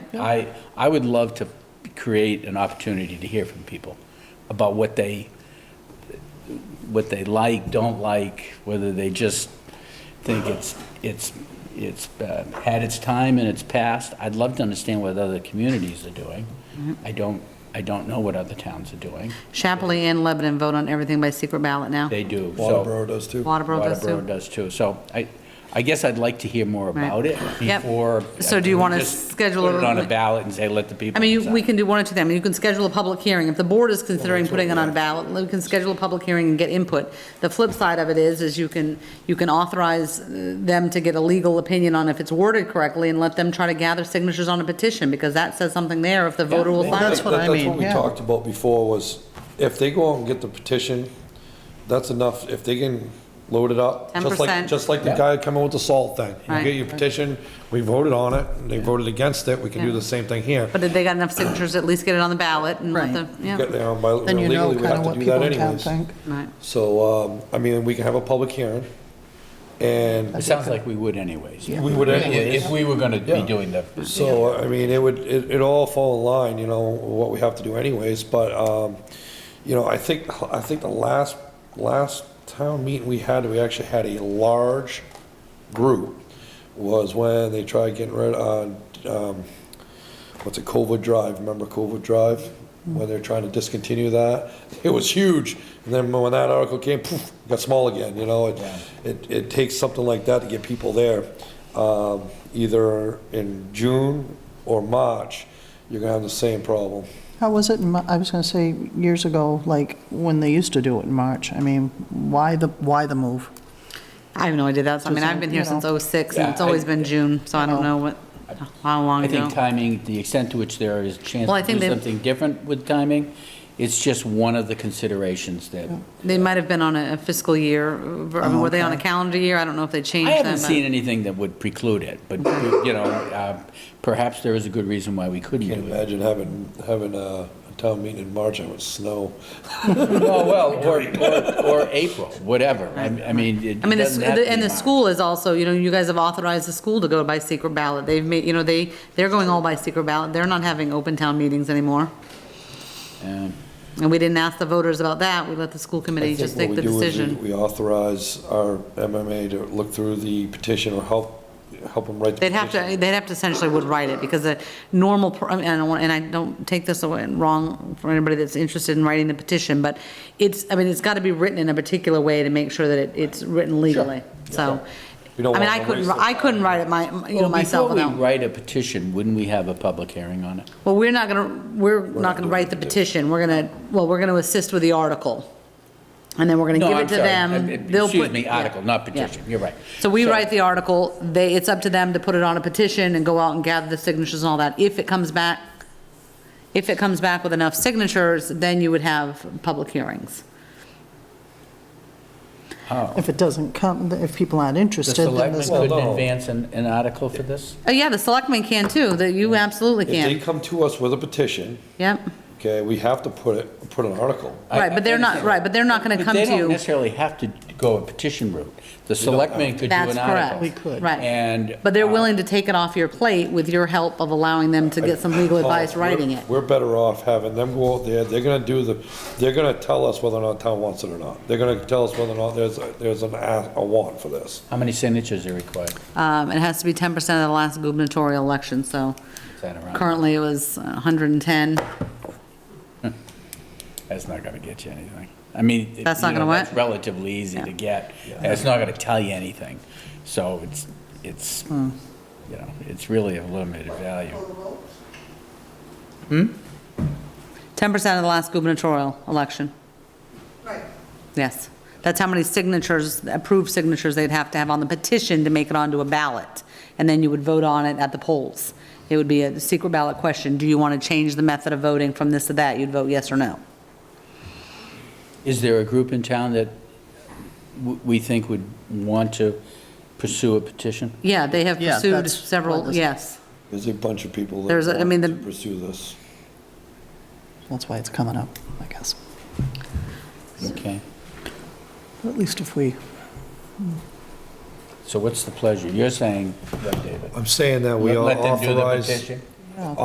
I, I would love to create an opportunity to hear from people about what they, what they like, don't like, whether they just think it's, it's, it's uh, had its time and it's passed. I'd love to understand what other communities are doing. Mm-hmm. I don't, I don't know what other towns are doing. Chapley and Lebanon vote on everything by secret ballot now. They do. so- Waterboro does too. Waterboro does Waterboro too. does too. So I, I guess I'd like to hear more Right. about it Yep. before. So do you wanna Just schedule Put it a- on a ballot and say, let the people. I mean, you- we decide. can do one or two things. You can schedule a public hearing. If the board is considering putting it on a ballot, we can schedule a public hearing and get input. The flip side of it is, is you can, you can authorize uh, them to get a legal opinion on if it's worded correctly and let them try to gather signatures on a petition, because that says something there if the voter will sign That's it. what I mean, we yeah. talked about before was if they go out and get the petition, that's enough. If they can load it up, just 10%. like, just like the Yeah. guy coming with the salt thing. You Right. get your petition, we voted on it, and they voted against it, we can do Yeah. the same thing here. But if they got enough signatures, at least get it on the ballot and let the, Right. yeah, Get there on by- Then you know legally, we kind have of to what do that people in town anyways. think. right. So, um, I mean, we can have a public hearing, It and sounds like we would anyways. we would anyways. If we were gonna be Yeah. doing the. So, I mean, it would, it, it all fall in line, you know, what we have to do anyways, but, um, you know, I think, I think the last, last town meeting we had, we actually had a large group, was when they tried getting rid of, um, what's it, Covert Drive, remember Covert Drive? Mm. When they're trying to discontinue that, it was huge, and then when that article came, poof, it got small again, you know? It- It, it takes something like that to get people there. Um, either in June or March, you're gonna have the same problem. How was it, in Mar- I was going to say, years ago, like, when they used to do it in March? I mean, why the, why the move? I have no idea. That's, I mean, I've been here Just, you since know. '06, and it's Yeah, I- always been June, so I don't know what, how long I ago. think timing, the extent to which there is a chance Well, I to think do they- something different with timing, it's just one of the considerations that. They might have been on a fiscal year, or- I mean, were they on a Okay. calendar year? I don't know if they changed Oh, I that. haven't but- seen anything that would preclude it, but, you know, uh, perhaps there is a good reason why we couldn't Can't do it. imagine having, having a a town meeting in March and it would snow. Oh, well, or, or, or April, whatever. I I mean, it I mean, the s- doesn't have to the- and be the March. school is also, you know, you guys have authorized the school to go by secret ballot. They've made, you know, they, they're going all by secret ballot. They're not having open town meetings anymore. Um, And we didn't ask the voters about that. We let the school I committee just think make the what we do is we- decision. We authorize our MMA to look through the petition or help, help them write the They'd petition. have to, they'd have to essentially would write it, because the normal, pr- I mean, I don't want, and I don't take this away wrong for anybody that's interested in writing the petition, but it's, I mean, it's got to be written in a particular way to make sure that it, it's written legally, so. I We don't mean, want I to couldn't, waste it. I couldn't write it my, you know, Well, myself. Before we no. write a petition, wouldn't we have a public hearing on it? Well, we're not going to, we're not going to write the petition, we're going to, well, we're going to assist with the article. And then we're going to No, give I'm it to sorry. them. Uh, uh, They'll excuse put- me, yeah, article, not yeah. petition. You're right. So we So- write the article, they, it's up to them to put it on a petition and go out and gather the signatures and all that. If it comes back, if it comes back with enough signatures, then you would have public hearings. If it doesn't come, if people aren't The interested, then selectmen there's no... couldn't no- advance an, an article for this? Oh, yeah, the selectmen can too, that you absolutely If they can. come to us with a petition, Yep, okay, we have to put it, put an article. I- right, but they're not, I- right, but they're not going to But come to you. They don't necessarily have to go a petition route. The selectmen could do That's an correct. article. We could. Right. And. But they're uh, willing to take it off your plate with your help of allowing them to get some legal advice writing it. Oh, We're better off having them go out there, they're gonna do the, they're gonna tell us whether or not town wants it or not. They're gonna tell us whether or not there's, a- there's an, a a want for this. How many signatures are required? Um, it has to be ten percent of the last gubernatorial election, so Is that around? currently it was hundred and ten. That's not gonna get you anything. I mean. it- That's not you know, gonna what? that's Relatively easy to Yeah. get. That's not gonna tell you anything. So it's, it's, Hmm. you know, it's really of limited value. Ten percent of the last gubernatorial election. Right. Yes. That's how many signatures, approved signatures they'd have to have on the petition to make it onto a ballot. And then you would vote on it at the polls. It would be a secret ballot question. Do you want to change the method of voting from this to that? You'd vote yes or no. Is there a group in town that w- we think would want to pursue a petition? Yeah, they have Yeah, pursued that's what several, this- yes. There's a bunch of people There's a- I that mean, want the- to pursue this. That's why it's coming up, I guess. Okay, At least if we, so what's the pleasure? You're saying, what, David? I'm saying that we Let- let them do the authorize. petition?